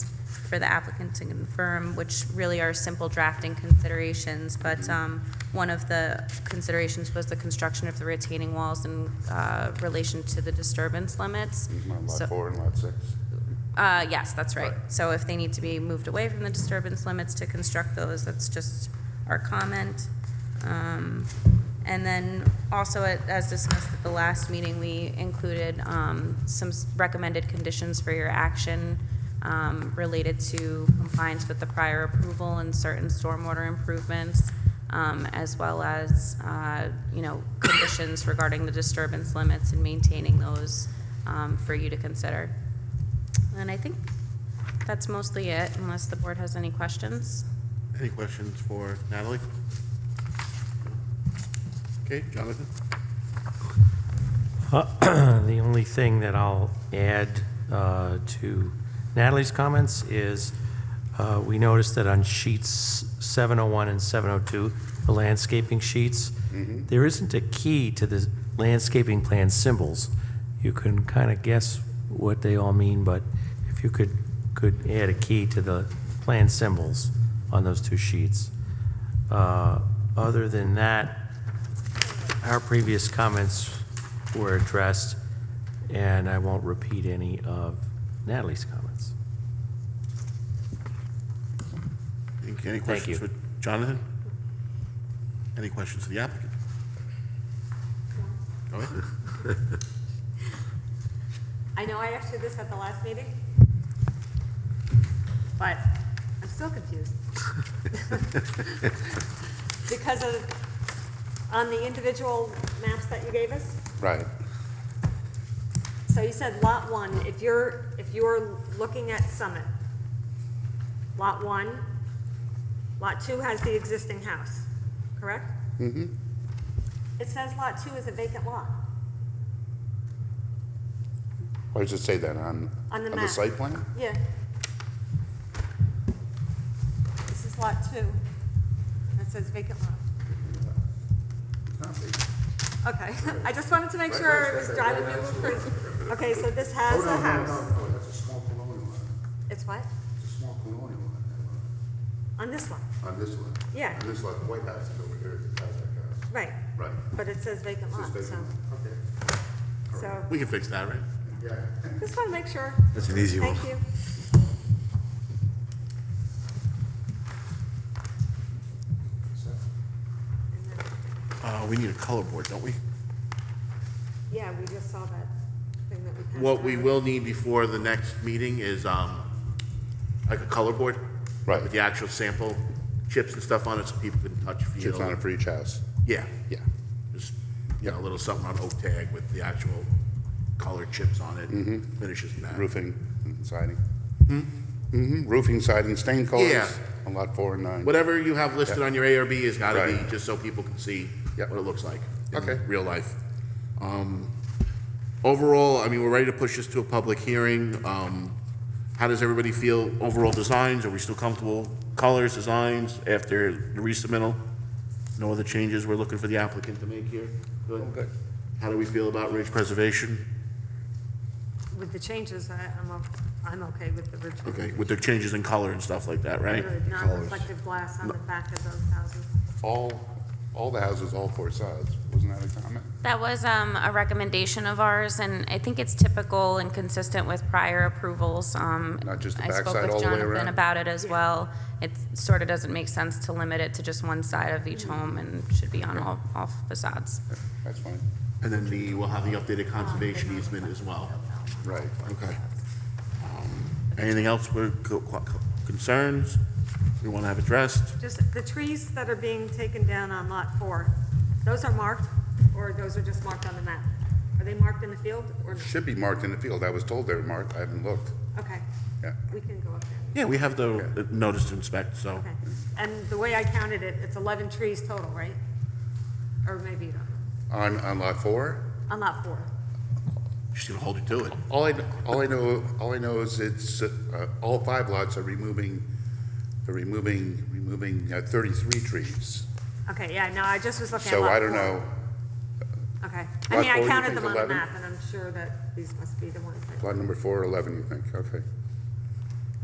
for the applicant to confirm, which really are simple drafting considerations, but um, one of the considerations was the construction of the retaining walls in uh, relation to the disturbance limits. So- Lot four and lot six? uh, yes, that's right. So if they need to be moved away from the disturbance limits to construct those, that's just our comment. Um, and then also, at- as discussed at the last meeting, we included, um, some s- recommended conditions for your action, um, related to compliance with the prior approval and certain stormwater improvements, um, as well as, uh, you know, conditions regarding the disturbance limits and maintaining those, um, for you to consider. And I think that's mostly it, unless the board has any questions. Any questions for Natalie? Okay, Jonathan? The only thing that I'll add uh, to Natalie's comments is, uh, we noticed that on sheets 701 and 702, the landscaping sheets, there isn't a key to the landscaping plan symbols. You can kind of guess what they all mean, but if you could, could add a key to the plan symbols on those two sheets. Uh, Other than that, our previous comments were addressed, and I won't repeat any of Natalie's comments. Any- Any questions you. for Jonathan? Any questions for the applicant? Go ahead. I know I asked you this at the last meeting, but I'm still confused. Because of, on the individual maps that you gave us, Right. so you said Lot 1, if you're, if you're looking at Summit, Lot 1, Lot 2 has the existing house, correct? Mm-hmm. It says Lot 2 is a vacant lot. Why does it say that on, On on the the map. site plan? Yeah. This is lot two. That says vacant lot. Okay, I just wanted to make sure it was driving me a little crazy. Okay, so this has a house. no, that's a small colonial lot. It's what? It's a small colonial lot, On this lot, on this one. Yeah. On this lot, the White House is over here, it's the House. right. Right. But it says vacant lot, so, Okay. so, We can fix that, right? Yeah. just want to make sure. That's an easy one. Thank you. Uh, we need a color board, don't we? Yeah, we just saw that thing that we passed. What we around. will need before the next meeting is, um, like a color board. Right. With the actual sample chips and stuff on it, so people can touch, feel. Chips on it for each house, Yeah, yeah. just, you know, a little something on oak tag with the actual color chips on it, finishes and that. Roofing and siding. Mm-hmm, roofing, siding, stain Yeah. colors on lot four and nine. Whatever you have listed Yeah. on your ARB has got to Right. be, just so people can see Yep. what it looks like Okay. in real life. Um, Overall, I mean, we're ready to push this to a public hearing. Um, How does everybody feel overall designs? Are we still comfortable? Colors, designs, after the resubmittal? No other changes we're looking for the applicant to make here? Good. How do we feel about ridge preservation? With the changes, I, I'm, o- I'm okay with the original. Okay, with the changes in color and stuff like that, right? Good, Non-reflective glass on the back of those houses. All, all the houses, all four sides, wasn't that a comment? That was um, a recommendation of ours, and I think it's typical and consistent with prior approvals. Um, Not just the I spoke backside with all the way Jonathan around? About it as well. It sort of doesn't make sense to limit it to just one side of each home and should be on all all facades. That's fine, And then the, we'll have the updated conservation easement as well. right. Okay. Um, Anything else with co- co- concerns we want to have addressed? Just the trees that are being taken down on Lot 4, those are marked, or those are just marked on the map? Are they marked in the field, or, no? Should be marked in the field, I was told they were marked, I haven't looked, okay, yeah. we can go up there, Yeah, we have the the notice to inspect, so. okay. And the way I counted it, it's 11 trees total, right? Or maybe, you don't know. On, on lot four? on Lot 4, She's going to hold you to it. All I, all I know, all I know is it's, uh, all five lots are removing, they're removing, removing uh, thirty-three trees. okay, yeah, no, I just was looking at So Lot 4. I don't know, Okay, Lot I mean, I four, you counted think them on the 11? map, and I'm sure that these must be the ones that, lot number four or eleven, you think, okay.